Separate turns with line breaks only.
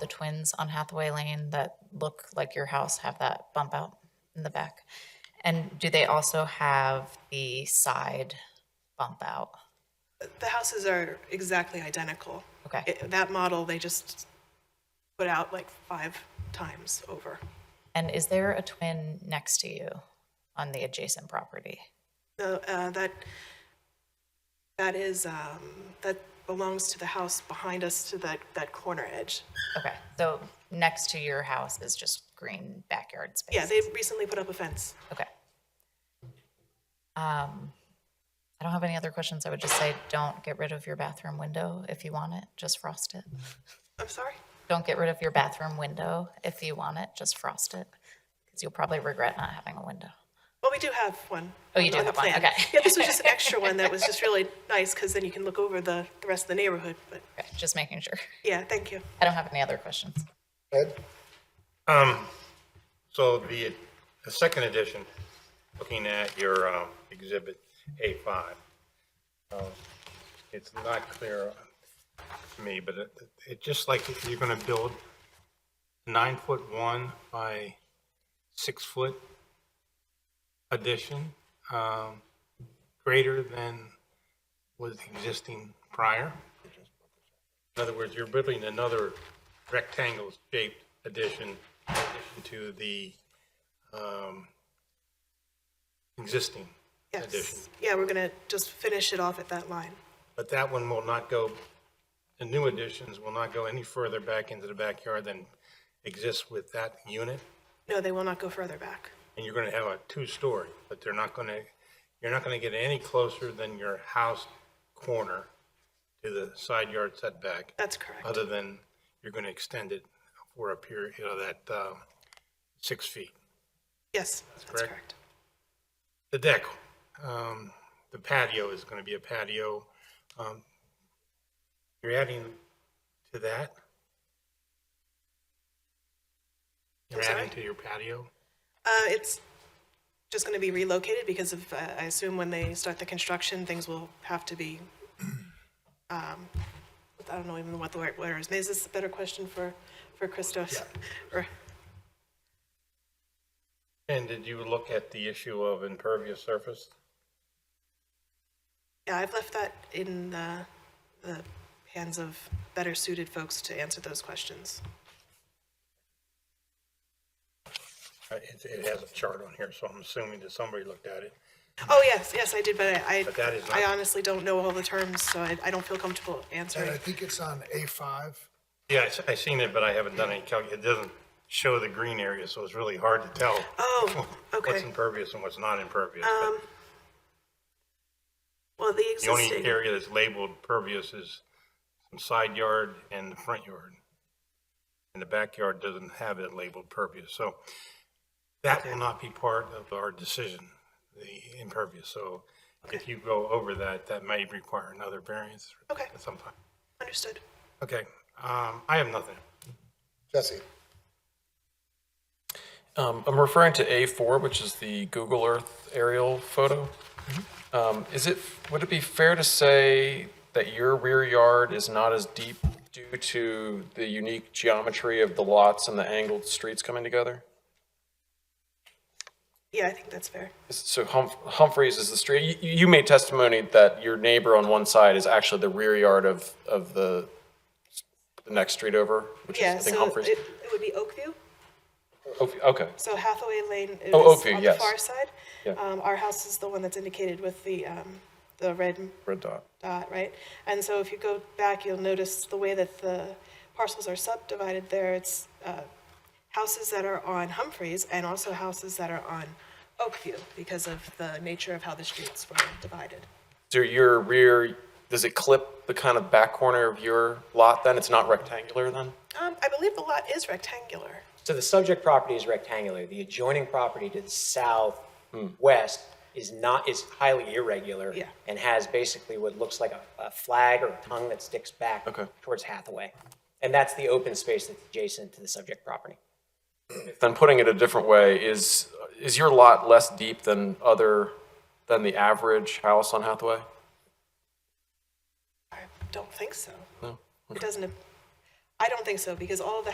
the twins on Hathaway Lane that look like your house have that bump out in the back? And do they also have the side bump out?
The houses are exactly identical.
Okay.
It- That model, they just put out like five times over.
And is there a twin next to you on the adjacent property?
No, uh, that, that is, um, that belongs to the house behind us to that, that corner edge.
Okay, so next to your house is just green backyard space?
Yeah, they've recently put up a fence.
Okay. Um, I don't have any other questions. I would just say, don't get rid of your bathroom window if you want it, just frost it.
I'm sorry?
Don't get rid of your bathroom window if you want it, just frost it, because you'll probably regret not having a window.
Well, we do have one.
Oh, you
on-
do
on the
have one,
plan.
okay.
Yeah, this was just an extra one that was just really nice because then you can look over the, the rest of the neighborhood. But
Okay, just making sure.
yeah, thank you.
I don't have any other questions.
Ed?
Um, So the, the second edition, looking at your um, exhibit A5, um, it's not clear to me, but it, it just like if you're going to build nine foot one by six foot addition, um, greater than was existing prior. In other words, you're building another rectangle-shaped addition in addition to the um, existing addition.
Yes. Yeah, we're going to just finish it off at that line.
But that one will not go, the new additions will not go any further back into the backyard than exists with that unit.
No, they will not go further back.
And you're going to have a two-story, but they're not going to, you're not going to get any closer than your house corner to the side yard setback.
That's correct.
other than you're going to extend it for a period, you know, that uh, six feet.
Yes, that's
correct.
correct.
The deck, um, the patio is going to be a patio. um, You're adding to that? You're
I'm sorry?
adding to your patio?
Uh, It's just going to be relocated because of, uh, I assume when they start the construction, things will have to be, um, I don't know even what the right word is. Is this a better question for, for Christos? Or-
And did you look at the issue of impervious surface?
Yeah, I've left that in the, the hands of better suited folks to answer those questions.
Uh, It it has a chart on here, so I'm assuming that somebody looked at it.
Oh, yes, yes, I did, but I,
But that is
I
not-
honestly don't know all the terms, so I, I don't feel comfortable
And
answering.
I think it's on A5.
Yeah, I s- I seen it, but I haven't done any calc, it doesn't show the green area, so it's really hard to tell.
Oh,
What's
okay. Um,
impervious and what's not impervious. but
Well, the
The only
existing,
area that's labeled pervious is some side yard and the front yard. And the backyard doesn't have it labeled pervious, so that will not be part of our decision, the impervious. So if you go over that, that may require another variance
Okay.
at some time.
understood.
Okay, um, I have nothing.
Jesse?
Um, I'm referring to A4, which is the Google Earth aerial photo. Um, Is it, would it be fair to say that your rear yard is not as deep due to the unique geometry of the lots and the angled streets coming together?
Yeah, I think that's fair.
Is- So Hump- Humphreys is the street, you, you made testimony that your neighbor on one side is actually the rear yard of, of the, the next street over, which is, I
Yeah,
think
so
Humphreys.
it, it would be Oakview,
Oak- Okay,
so Hathaway Lane is
Oh, Oakview,
on the
yes.
far side.
Yeah.
Um, our house is the one that's indicated with the, um, the red
red dot.
dot, right? And so if you go back, you'll notice the way that the parcels are subdivided there, it's uh, houses that are on Humphreys and also houses that are on Oakview because of the nature of how the streets were divided.
So your rear, does it clip the kind of back corner of your lot then? It's not rectangular then?
Um, I believe the lot is rectangular.
So the subject property is rectangular. The adjoining property to the southwest is not, is highly irregular.
Yeah.
And has basically what looks like a, a flag or a tongue that sticks back.
Okay.
Towards Hathaway. And that's the open space that's adjacent to the subject property.
Then putting it a different way, is, is your lot less deep than other, than the average house on Hathaway?
I don't think so.
No?
It doesn't, ap- I don't think so because all of the